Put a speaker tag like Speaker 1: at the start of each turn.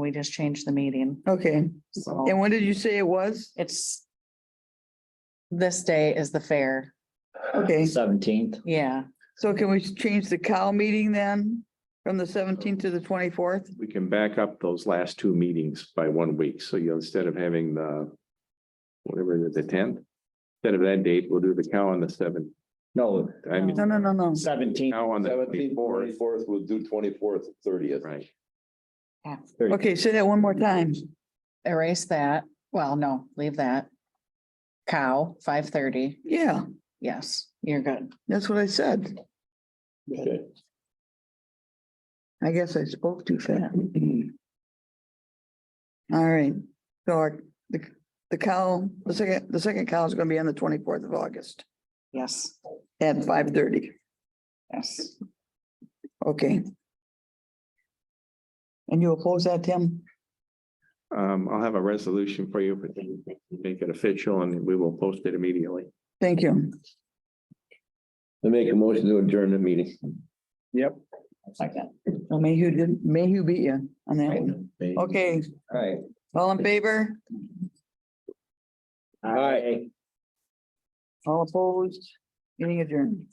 Speaker 1: we just changed the meeting,
Speaker 2: Okay,
Speaker 1: so
Speaker 2: and when did you say it was?
Speaker 1: it's. This day is the fair,
Speaker 2: Okay,
Speaker 3: Seventeenth,
Speaker 1: yeah,
Speaker 2: so can we change the cow meeting then from the seventeenth to the twenty-fourth?
Speaker 4: We can back up those last two meetings by one week. So you, instead of having the whatever it is, the tenth, instead of that date, we'll do the cow on the seventh.
Speaker 3: no,
Speaker 4: I mean,
Speaker 2: No, no, no, no.
Speaker 3: seventeenth.
Speaker 4: cow on the twenty-fourth,
Speaker 5: Fourth, we'll do twenty-fourth, thirtieth.
Speaker 4: right?
Speaker 2: Okay, say that one more time.
Speaker 1: erase that, well, no, leave that. Cow, five thirty,
Speaker 2: Yeah,
Speaker 1: yes, you're good,
Speaker 2: that's what I said.
Speaker 5: Okay.
Speaker 2: I guess I spoke too fast. All right, so our, the, the cow, the second, the second cow is gonna be on the twenty-fourth of August
Speaker 1: yes,
Speaker 2: at five thirty.
Speaker 1: yes.
Speaker 2: Okay. And you oppose that, Tim?
Speaker 4: Um, I'll have a resolution for you, but then make it official and we will post it immediately.
Speaker 2: Thank you.
Speaker 5: I make a motion to adjourn the meeting.
Speaker 4: Yep.
Speaker 2: Well, Mayhew did, Mayhew beat you on that one.
Speaker 5: Okay.
Speaker 2: Okay,
Speaker 3: All right.
Speaker 2: all in favor,
Speaker 3: All right.
Speaker 2: all opposed, meeting adjourned.